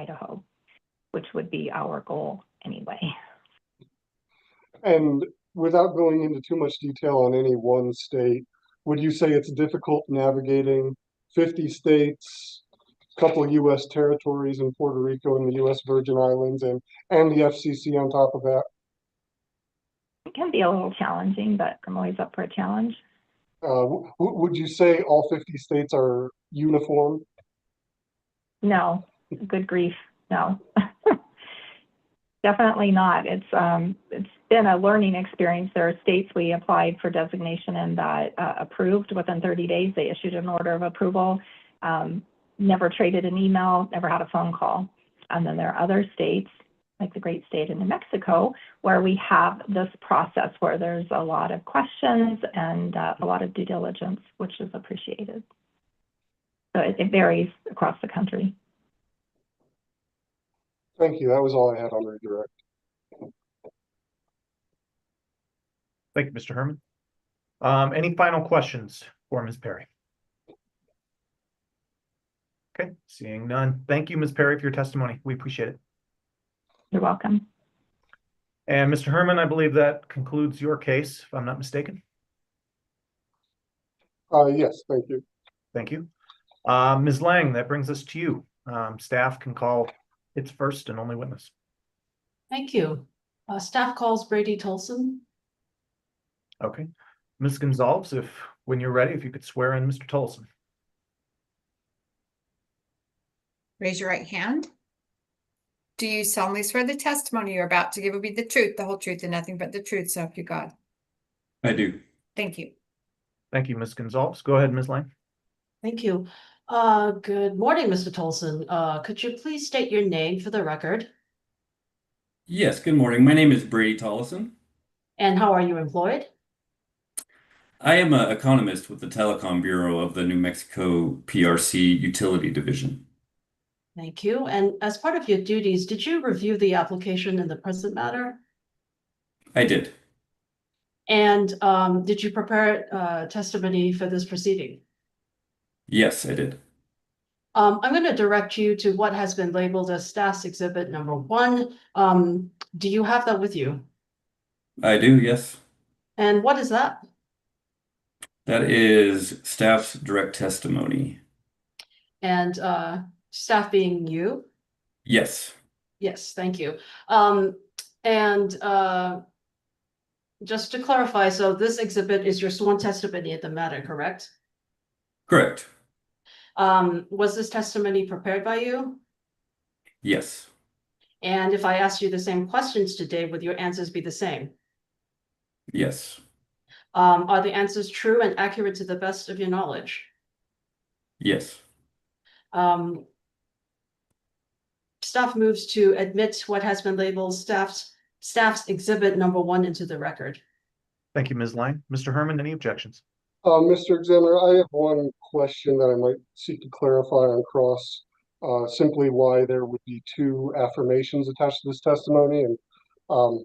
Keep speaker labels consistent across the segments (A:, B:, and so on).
A: Idaho, which would be our goal anyway.
B: And without going into too much detail on any one state, would you say it's difficult navigating fifty states, a couple of US territories in Puerto Rico and the US Virgin Islands and, and the FCC on top of that?
A: It can be a little challenging, but I'm always up for a challenge.
B: Uh, w- w- would you say all fifty states are uniform?
A: No, good grief, no. Definitely not. It's, um, it's been a learning experience. There are states we applied for designation and that uh, approved within 30 days. They issued an order of approval, um, never traded an email, never had a phone call. And then there are other states, like the great state of New Mexico, where we have this process where there's a lot of questions and uh, a lot of due diligence, which is appreciated. So it, it varies across the country.
B: Thank you. That was all I had on redirect.
C: Thank you, Mr. Herman. Um, any final questions for Ms. Perry? Okay, seeing none. Thank you, Ms. Perry, for your testimony. We appreciate it.
A: You're welcome.
C: And Mr. Herman, I believe that concludes your case, if I'm not mistaken.
B: Uh, yes, thank you.
C: Thank you. Uh, Ms. Lang, that brings us to you. Um, staff can call its first and only witness.
D: Thank you. Uh, staff calls Brady Tolson.
C: Okay. Ms. Gonzalez, if, when you're ready, if you could swear in Mr. Tolson.
E: Raise your right hand. Do you solemnly swear the testimony you're about to give will be the truth, the whole truth, and nothing but the truth, so help you God?
F: I do.
E: Thank you.
C: Thank you, Ms. Gonzalez. Go ahead, Ms. Lang.
D: Thank you. Uh, good morning, Mr. Tolson. Uh, could you please state your name for the record?
F: Yes, good morning. My name is Brady Tollison.
D: And how are you employed?
F: I am an economist with the Telecom Bureau of the New Mexico PRC Utility Division.
D: Thank you. And as part of your duties, did you review the application in the present matter?
F: I did.
D: And, um, did you prepare, uh, testimony for this proceeding?
F: Yes, I did.
D: Um, I'm going to direct you to what has been labeled as staff's exhibit number one. Um, do you have that with you?
F: I do, yes.
D: And what is that?
F: That is staff's direct testimony.
D: And, uh, staff being you?
F: Yes.
D: Yes, thank you. Um, and, uh, just to clarify, so this exhibit is your sworn testimony at the matter, correct?
F: Correct.
D: Um, was this testimony prepared by you?
F: Yes.
D: And if I asked you the same questions today, would your answers be the same?
F: Yes.
D: Um, are the answers true and accurate to the best of your knowledge?
F: Yes.
D: Um, staff moves to admit what has been labeled staff's, staff's exhibit number one into the record.
C: Thank you, Ms. Lang. Mr. Herman, any objections?
B: Uh, Mr. Examiner, I have one question that I might seek to clarify on cross, uh, simply why there would be two affirmations attached to this testimony. And um,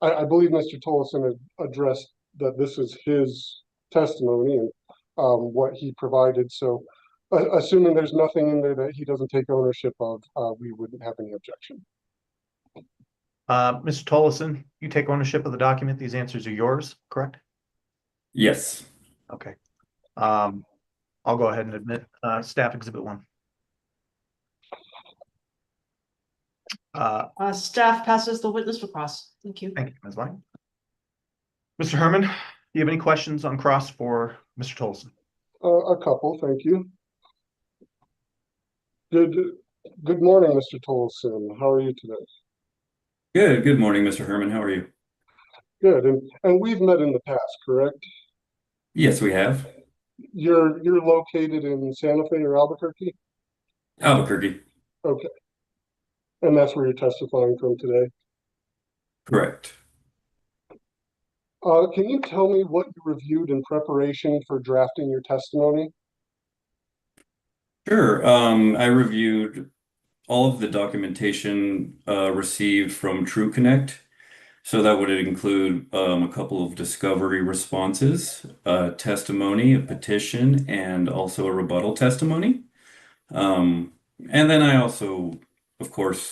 B: I, I believe Mr. Tolleson had addressed that this is his testimony and um, what he provided. So uh, assuming there's nothing in there that he doesn't take ownership of, uh, we wouldn't have any objection.
C: Uh, Mr. Tolleson, you take ownership of the document. These answers are yours, correct?
F: Yes.
C: Okay. Um, I'll go ahead and admit, uh, staff exhibit one. Uh,
D: Uh, staff passes the witness for cross. Thank you.
C: thank you, Ms. Lang. Mr. Herman, do you have any questions on cross for Mr. Tolleson?
B: Uh, a couple, thank you. Good, good morning, Mr. Tolleson. How are you today?
F: Good. Good morning, Mr. Herman. How are you?
B: Good, and, and we've met in the past, correct?
F: Yes, we have.
B: You're, you're located in Santa Fe or Albuquerque,
F: Albuquerque.
B: and that's where you're testifying from today.
F: Correct.
B: Uh, can you tell me what you reviewed in preparation for drafting your testimony?
F: Sure. Um, I reviewed all of the documentation uh, received from TrueConnect. So that would include um, a couple of discovery responses, uh, testimony, a petition, and also a rebuttal testimony. Um, and then I also of course,